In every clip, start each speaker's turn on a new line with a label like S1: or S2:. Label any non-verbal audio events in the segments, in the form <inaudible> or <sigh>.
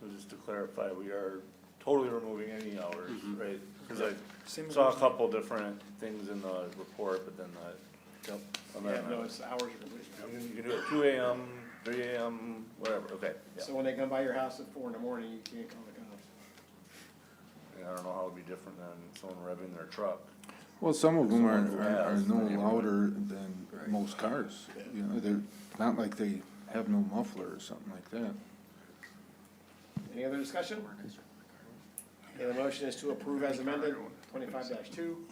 S1: So just to clarify, we are totally removing any hours,
S2: Mm-hmm.
S1: right? Cause I
S3: Same
S1: saw a
S3: goes-
S1: couple different things in the report, but then that. Yep. And
S2: Yeah,
S1: then,
S2: no,
S1: uh,
S2: it's hours of completion.
S1: you can do it two AM, three AM, whatever, okay, yeah.
S2: So when they come by your house at four in the morning, you can't call the cops.
S1: And I don't know how it'd be different than someone revving their truck.
S4: Well, some of them are, are- are
S1: Yeah.
S4: no louder than most cars, you know, they're not like they have no muffler or something like that.
S2: Any other discussion? Okay, the motion is to approve as amended, twenty-five two.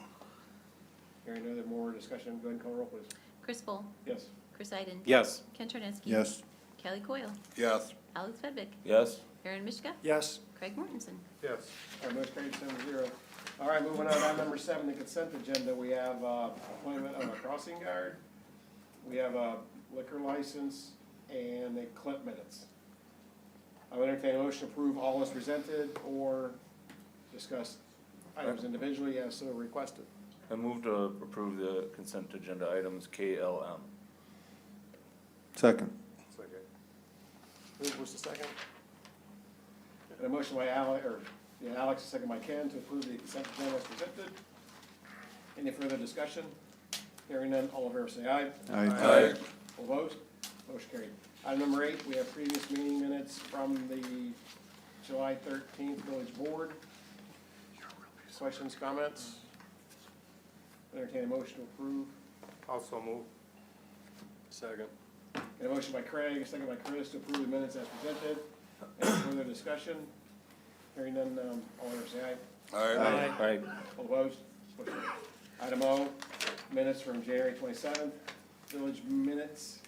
S2: Hearing no other more discussion, go ahead and call roll, please.
S5: Chris Bull,
S2: Yes.
S5: Chris Iden.
S6: Yes.
S5: Ken Tornitzky.
S4: Yes.
S5: Kelly Coyle,
S6: Yes.
S5: Alex Fedvik,
S1: Yes?
S5: Aaron Mishka,
S3: Yes,
S5: Craig Mortensen.
S1: Yes.
S2: All right, motion carried seven zero. All right, moving on to item number seven, the consent agenda, we have, uh, appointment of a crossing guard. We have a liquor license and the clip minutes. I would entertain a motion to approve all as presented or discuss items individually as so requested.
S1: I move to approve the consent agenda items K L M.
S4: Second.
S2: Who was the second? And a motion by Alex, or, yeah, Alex, a second by Ken, to approve the consent agenda as presented. Any further discussion? Hearing none, all in favor say aye.
S4: Aye.
S2: All opposed? Motion carried. Item number eight, we have previous meeting minutes from the July thirteenth village board. Questions, comments? Entertain a motion to approve.
S7: Also move. Second.
S2: Got a motion by Craig, a second by Chris to approve the minutes as presented. Any further discussion? Hearing none, um, all in favor say aye.
S1: Aye. Aye.
S2: All opposed? Motion carried. Item O, minutes from January twenty-seventh, village minutes.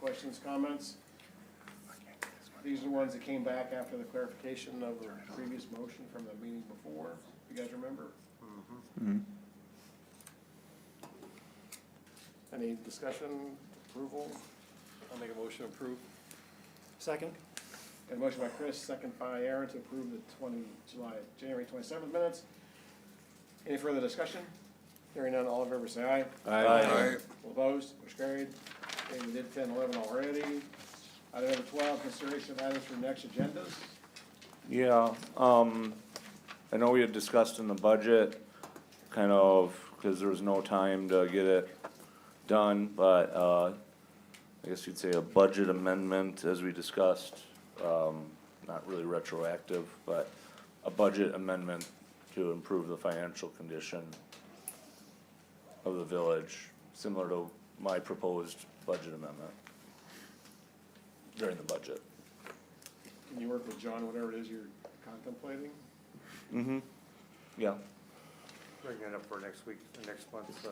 S2: Questions, comments? These are the ones that came back after the clarification of the previous motion from the meeting before. You guys remember? Mm-hmm. Any discussion, approval?
S7: I'll make a motion to approve.
S3: second,
S2: Got a motion by Chris, second by Aaron to approve the twenty, July, January twenty-seventh minutes. Any further discussion? Hearing none, all in favor say aye.
S1: Aye.
S2: All opposed, motion carried. Okay, we did 10, 11 already. Item number twelve, consideration of items for next agendas.
S1: Yeah, um, I know we had discussed in the budget, kind of, cause there was no time to get it done, but, uh, I guess you'd say a budget amendment, as we discussed, um, not really retroactive, but a budget amendment to improve the financial condition of the village, similar to my proposed budget amendment during the budget.
S2: Can you work with John, whatever it is you're contemplating?
S1: Mm-hmm, yeah.
S7: Bring that up for next week, next month's, uh,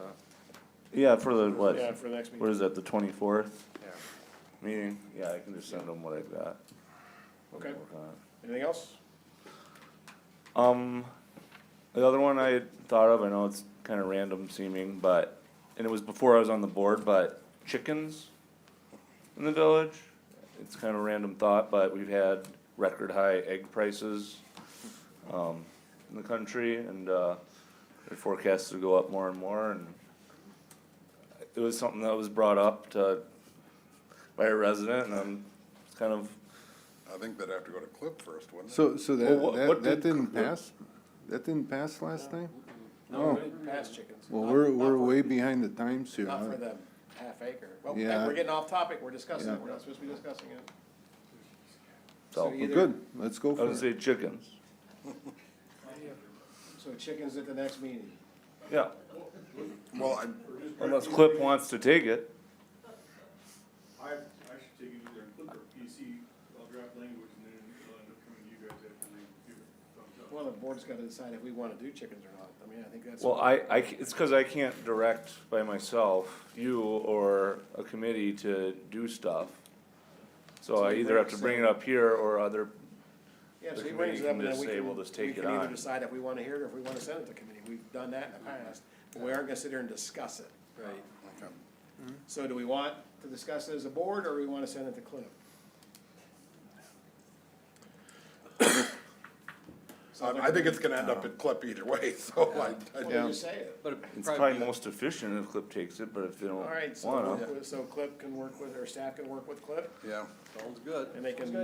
S1: Yeah, for the, what,
S2: Yeah, for the next meeting.
S1: what is that, the twenty-fourth
S7: yeah.
S1: meeting? Yeah, I can just send them what I've got.
S2: Okay,
S1: Work on it.
S2: anything else?
S1: Um, the other one I had thought of, I know it's kinda random seeming, but, and it was before I was on the board, but chickens in the village, it's kinda a random thought, but we've had record high egg prices, um, in the country, and, uh, they're forecast to go up more and more, and it was something that was brought up to, by a resident, and I'm kind of,
S8: I think they'd have to go to Clip first, wouldn't it?
S4: So, so
S1: Well, what-
S4: that, that,
S1: what
S4: that
S1: did-
S4: didn't pass? That didn't pass last night?
S2: No,
S4: No.
S2: past chickens.
S4: Well,
S2: Not-
S4: Oh, we're,
S2: not
S4: we're
S2: for-
S4: way behind the times here.
S2: Not
S4: huh?
S2: for the half acre. Well,
S4: Yeah.
S2: we're getting off topic, we're discussing it,
S4: Yeah.
S2: we're not supposed to be discussing it.
S1: so,
S4: Well, Good, let's go
S1: I
S4: for
S1: would
S4: it.
S1: say chickens,
S2: So chickens at the next meeting.
S1: yeah.
S8: Well, I,
S1: Unless Clip wants to take it.
S9: I, I should take it either in Clip or PC, I'll uh, draft language and then it'll end up coming to you guys after they give it thumbs up.
S2: Well, the board's gotta decide if we wanna do chickens or not. I mean, I think that's.
S1: Well, I, I, c- it's cause I can't direct by myself, you or a committee to do stuff. So I either have to bring it up here or other,
S2: Yeah, so
S1: the
S2: he
S1: committee
S2: brings it up
S1: can
S2: and then
S1: just
S2: we
S1: say,
S2: can,
S1: "Well, just take
S2: we
S1: it
S2: can either
S1: on."
S2: decide if we wanna hear it or if we wanna send it to committee. We've done that in the past. But we aren't gonna sit here and discuss it. Right.
S8: okay.
S2: So do we want to discuss it as a board or we wanna send it to Cliff?
S8: um, I, I think it's gonna end up at Clip either way, <laughs> so I, I
S2: Well,
S4: Yeah.
S2: you say it.
S6: But
S1: it's probably most efficient if Clip takes it, but if they don't
S2: All right, so,
S1: wanna.
S2: so Cliff can work with, or staff can work with Cliff
S8: yeah.
S6: sounds good.
S2: and they can